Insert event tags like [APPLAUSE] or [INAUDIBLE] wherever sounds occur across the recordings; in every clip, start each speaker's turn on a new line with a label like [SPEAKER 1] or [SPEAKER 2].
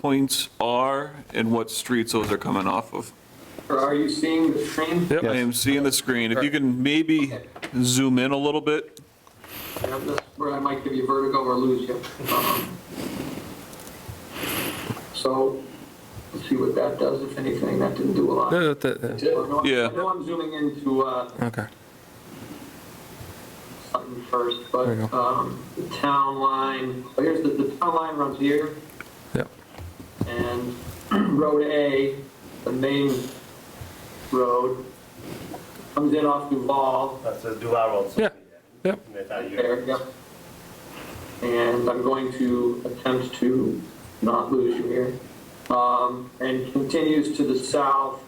[SPEAKER 1] points are and what streets those are coming off of.
[SPEAKER 2] Or are you seeing the screen?
[SPEAKER 1] Yep, I am seeing the screen. If you can maybe zoom in a little bit.
[SPEAKER 2] Yeah, That's where I might give you vertigo or lose you. Um, So, let's see what that does, if anything, that didn't do a lot.
[SPEAKER 3] No, that- that-
[SPEAKER 2] No, I
[SPEAKER 1] Yeah.
[SPEAKER 2] know I'm zooming into uh,
[SPEAKER 3] Okay,
[SPEAKER 2] something first, but
[SPEAKER 3] There you go.
[SPEAKER 2] um, the town line, oh, here's the, the town line runs here,
[SPEAKER 3] yep,
[SPEAKER 2] and [CLEARS THROAT] Road A, the main road, comes in off Duval,
[SPEAKER 4] That's a uh, Duval Road. so-
[SPEAKER 3] Yeah. yep,
[SPEAKER 4] That's how you-
[SPEAKER 2] There, yep. And I'm going to attempt to not lose you here. Um, And continues to the south,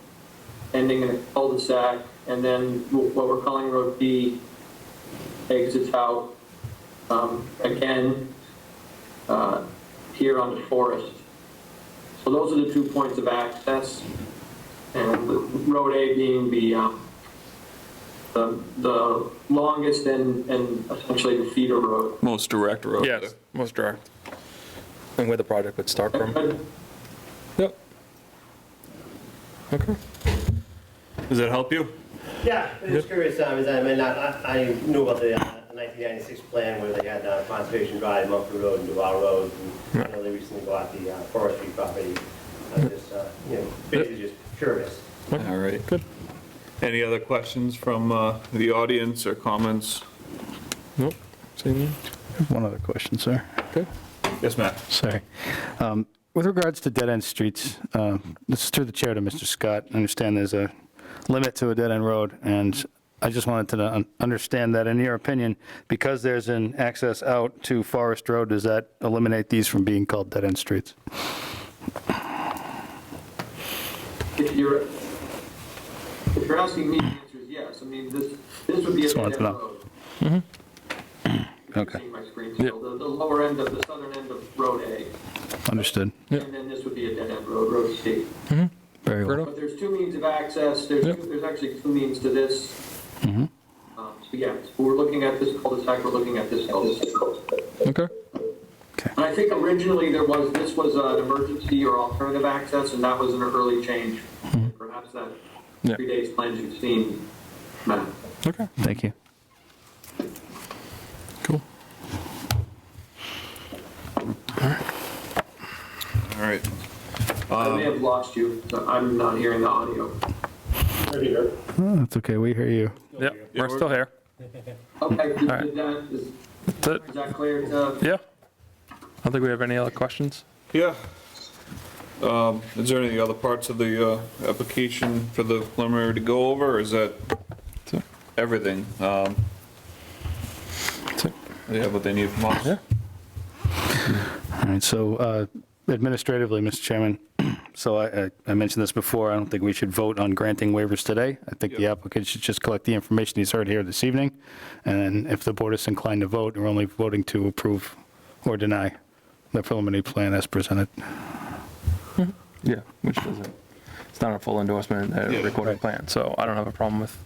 [SPEAKER 2] ending in a cul-de-sac, and then wh- what we're calling Road B exits out um, again uh, here on the forest. So those are the two points of access, and Road A being the um, the, the longest and, and essentially the feeder road.
[SPEAKER 1] Most direct road.
[SPEAKER 3] yes, most direct. And where the project would start from,
[SPEAKER 2] But
[SPEAKER 3] yep. Okay,
[SPEAKER 1] Does that help you?
[SPEAKER 4] Yeah, I'm just curious, uh, because I mean, I, I I knew about the uh, 1996 plan where they had uh, Conservation Drive, Mumford Road, and Duval Road, and I know they recently bought the uh, forestry property. I'm just, uh, you know, basically just curious.
[SPEAKER 1] All right.
[SPEAKER 3] Good.
[SPEAKER 1] Any other questions from uh, the audience or comments?
[SPEAKER 3] nope, seeing you,
[SPEAKER 5] One other question, sir.
[SPEAKER 3] okay,
[SPEAKER 1] Yes, Matt?
[SPEAKER 5] Sorry. Um, With regards to dead-end streets, uh, this is through the chair to Mr. Scott. I understand there's a limit to a dead-end road, and I just wanted to un- understand that, in your opinion, because there's an access out to Forest Road, does that eliminate these from being called dead-end streets?
[SPEAKER 2] if you're, if you're asking me, the answer is yes. I mean, this, this would be a
[SPEAKER 5] Just wanted
[SPEAKER 2] dead
[SPEAKER 5] to know.
[SPEAKER 2] road.
[SPEAKER 5] Okay.
[SPEAKER 2] Seeing my screen, so the, the lower end of, the southern end of Road A,
[SPEAKER 5] Understood.
[SPEAKER 3] Yep.
[SPEAKER 2] and then this would be a dead end road, Road C.
[SPEAKER 5] Very
[SPEAKER 3] fair
[SPEAKER 5] well.
[SPEAKER 3] enough,
[SPEAKER 2] But there's two means of access, there's,
[SPEAKER 3] Yep.
[SPEAKER 2] two- there's actually two means to this. Um, So yeah, we're looking at this cul-de-sac, we're looking at this cul-de-sac.
[SPEAKER 3] okay,
[SPEAKER 2] And I think originally there was, this was an emergency or alternative access, and that was an early change. Perhaps that
[SPEAKER 3] Mm-hmm. Yeah.
[SPEAKER 2] predates plans you've seen, Matt.
[SPEAKER 3] okay,
[SPEAKER 5] Thank you.
[SPEAKER 3] cool.
[SPEAKER 1] All right.
[SPEAKER 2] I may have lost you, so I'm not hearing the audio.
[SPEAKER 5] Oh, That's okay, we hear you.
[SPEAKER 3] Yep, we're still here,
[SPEAKER 2] Okay, did
[SPEAKER 3] right.
[SPEAKER 2] that, is
[SPEAKER 3] that's it,
[SPEAKER 2] is that clear to,
[SPEAKER 3] yeah. I don't think we have any other questions,
[SPEAKER 1] Yeah. Um, Is there any other parts of the uh, application for the preliminary to go over, or is that
[SPEAKER 3] That's it.
[SPEAKER 1] everything? Um,
[SPEAKER 3] that's it,
[SPEAKER 1] They have what they need from us?
[SPEAKER 3] yeah,
[SPEAKER 5] All right, so uh, administratively, Mr. Chairman, [CLEARS THROAT] so I- I- I mentioned this before, I don't think we should vote on granting waivers today. I think the
[SPEAKER 1] Yep.
[SPEAKER 5] applicant should just collect the information he's heard here this evening, and then if the board is inclined to vote, we're only voting to approve or deny the preliminary plan as presented.
[SPEAKER 3] yeah, which doesn't, it's not a full endorsement, a
[SPEAKER 1] Yeah.
[SPEAKER 3] recorded plan, so I don't have a problem with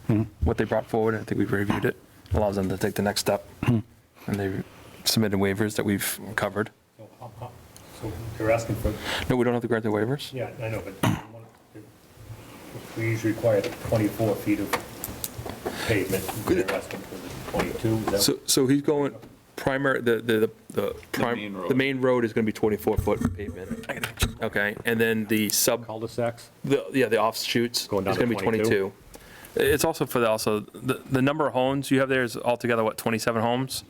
[SPEAKER 3] what they brought forward, I think we've reviewed it, allows them to take the next step, and they submitted waivers that we've covered.
[SPEAKER 6] So you're asking for,
[SPEAKER 3] No, we don't have to grant the waivers?
[SPEAKER 6] yeah, I know, but we usually require 24 feet of pavement. You're asking for the 22, is that?
[SPEAKER 3] So, so he's going primary, the, the, the,
[SPEAKER 1] main
[SPEAKER 3] prim-
[SPEAKER 1] road.
[SPEAKER 3] the main road is gonna be 24-foot pavement. Okay, and then the sub,
[SPEAKER 6] Cul-de-sacs?
[SPEAKER 3] the, yeah, the offshoots is
[SPEAKER 6] Going down
[SPEAKER 3] gonna be
[SPEAKER 6] to 22.
[SPEAKER 3] 22. It's also for the, also, the, the number of homes you have there is altogether, what, 27 homes?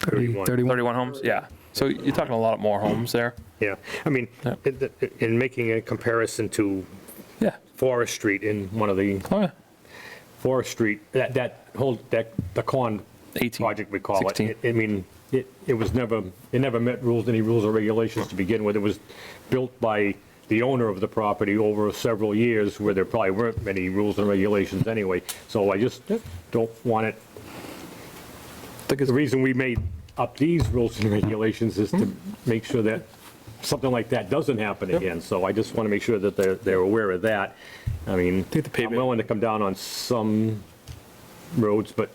[SPEAKER 6] 31.
[SPEAKER 3] 31 homes? Yeah. So you're talking a lot more homes there.
[SPEAKER 6] Yeah, I mean,
[SPEAKER 3] Yeah.
[SPEAKER 6] in- in making a comparison to
[SPEAKER 3] Yeah.
[SPEAKER 6] Forest Street in one of the,
[SPEAKER 3] Oh, yeah.
[SPEAKER 6] Forest Street, that, that whole, that, the con
[SPEAKER 3] 18,
[SPEAKER 6] project, we call it.
[SPEAKER 3] 16.
[SPEAKER 6] it. I mean, it, it was never, it never met rules, any rules or regulations to begin with. It was built by the owner of the property over several years where there probably weren't many rules and regulations anyway. So I just don't want it, the reason we made up these rules and regulations is to make sure that something like that doesn't happen again. So I just want to make sure that they're, they're aware of that. I mean,
[SPEAKER 3] think the
[SPEAKER 6] I'm
[SPEAKER 3] pavement-
[SPEAKER 6] willing to come down on some roads, but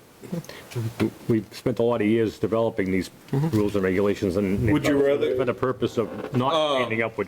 [SPEAKER 6] we've spent a lot of
[SPEAKER 3] Mm-hmm.
[SPEAKER 6] years developing these rules and regulations and.
[SPEAKER 1] Would you rather- Oh.
[SPEAKER 6] For the purpose of not ending up with